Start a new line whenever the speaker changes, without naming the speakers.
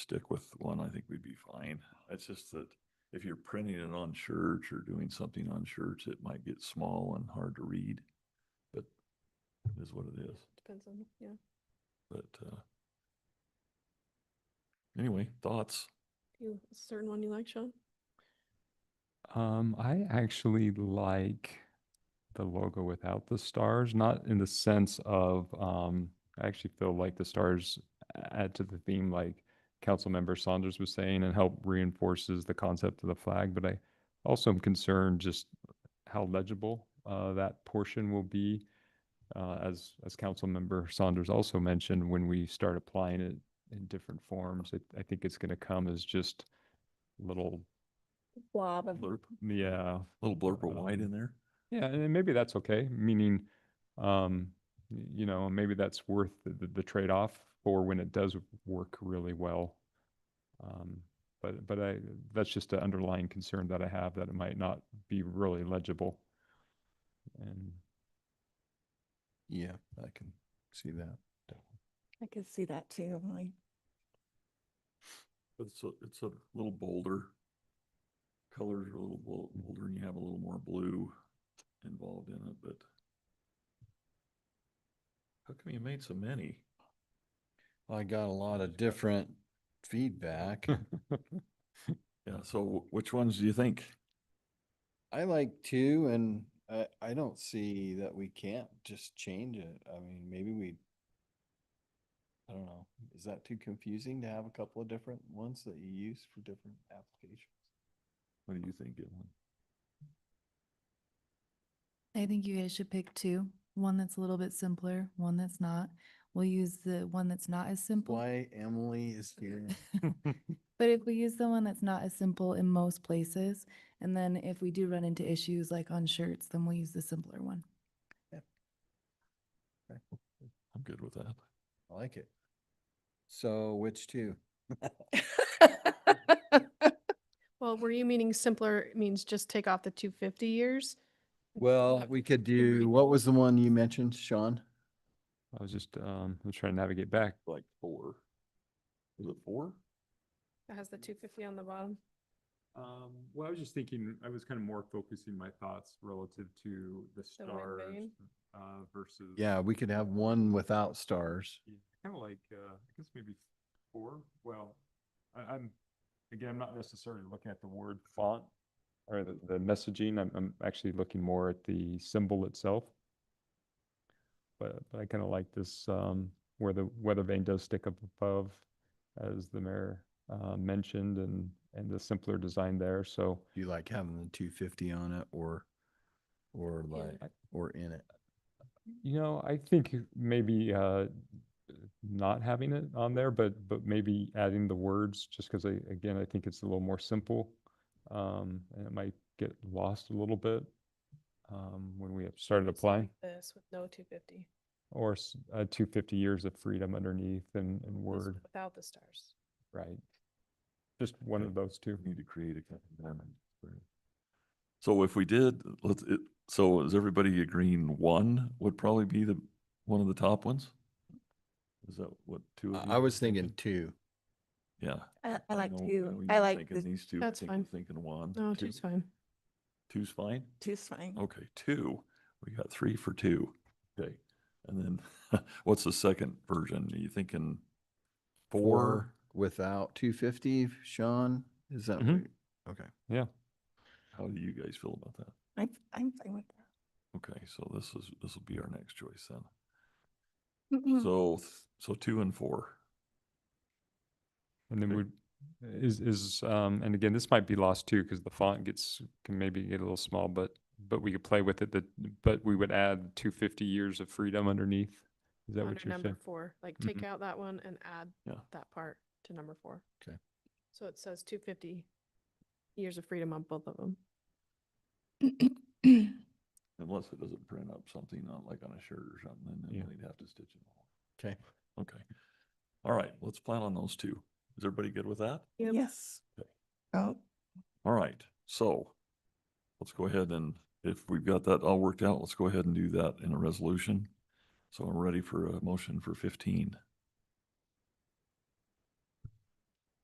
stick with one, I think we'd be fine. It's just that if you're printing it on shirts or doing something on shirts, it might get small and hard to read. But it is what it is,
Depends on, yeah.
but, uh, anyway, thoughts?
You, a certain one you like, Sean?
Um, I actually like the logo without the stars, not in the sense of um, I actually feel like the stars add to the theme, like Councilmember Saunders was saying, and help reinforces the concept of the flag. But I also am concerned just how legible uh, that portion will be, uh, as as Councilmember Saunders also mentioned, when we start applying it in different forms. It, I think it's going to come as just little,
Blob
Blurb,
yeah.
little blurb of white in there?
Yeah, and then maybe that's okay, meaning, um, y- you know, maybe that's worth the, the, the trade-off for when it does work really well. Um, but, but I, that's just an underlying concern that I have that it might not be really legible. And
Yeah, I can see that.
I could see that too. I
But It's a, it's a little bolder. Colors are a little bol- bolder and you have a little more blue involved in it, but how come you made so many?
I got a lot of different feedback.
Yeah, so wh- which ones do you think?
I like two and I, I don't see that we can't just change it. I mean, maybe we. I don't know. Is that too confusing to have a couple of different ones that you use for different applications?
What do you think, Gilman?
I think you guys should pick two, one that's a little bit simpler, one that's not. We'll use the one that's not as simple.
Why Emily is here?
But if we use the one that's not as simple in most places, and then if we do run into issues like on shirts, then we'll use the simpler one.
I'm good with that.
I like it. So which two?
Well, were you meaning simpler means just take off the two fifty years?
Well, we could do, what was the one you mentioned, Sean?
I was just, um, I'm trying to navigate back.
Like four. Is it four?
That has the two fifty on the bottom.
Um, well, I was just thinking, I was kind of more focusing my thoughts relative to the
The wind stars, vane?
uh, versus.
Yeah, we could have one without stars.
kind of like, uh, I guess maybe four, well, I, I'm, again, I'm not necessarily looking at the word font or the, the messaging, I'm, I'm actually looking more at the symbol itself. But, but I kind of like this, um, where the weather vane does stick up above, as the mayor, uh, mentioned, and, and the simpler design there, so
Do you like having the two fifty on it or, or like, or in it?
You know, I think maybe uh, not having it on there, but but maybe adding the words just because I again I think it's a little more simple, um, and it might get lost a little bit um, when we have started applying
This with no two fifty.
or s- uh, 250 years of freedom underneath and, and word
Without the stars.
right, just one
Okay.
of those two.
We Need to create a kind of environment. for it. So if we did, let's, it, so is everybody agreeing one would probably be the, one of the top ones? Is that what two of you?
I I was thinking two.
Yeah.
I, I like
know- know
two.
you're
I like
Thinking
the
these two. I
That's
think you're
fine.
Thinking one.
No,
two-
two's fine.
Two's fine?
two swing.
Okay, two. We got three for two. Okay. And then what's the second version? Are you thinking four?
Without two fifty, Sean, is that?
Mhm.
what- Okay.
Yeah,
How do you guys feel about that?
I'm, I'm fine with that.
Okay, so this is, this will be our next choice then. So, th- so two and four.
and then
Okay.
we is is um, and again this might be lost too because the font gets can maybe get a little small, but but we could play with it. That but we would add 250 years of freedom underneath. Is that
Under
what you're
number
saying?
four, like
Mhm.
take out that one and add
Yeah.
that part to number four.
'Kay.
So it says two fifty years of freedom on both of them.
Unless it doesn't print up something on like on a shirt or something, and
Yeah.
then they'd have to stitch it all.
Okay.
Okay. All right, let's plan on those two. Is everybody good with that?
Yep.
Yes.
Okay.
Oh,
All right, so let's go ahead and if we've got that all worked out, let's go ahead and do that in a resolution. So I'm ready for a motion for fifteen.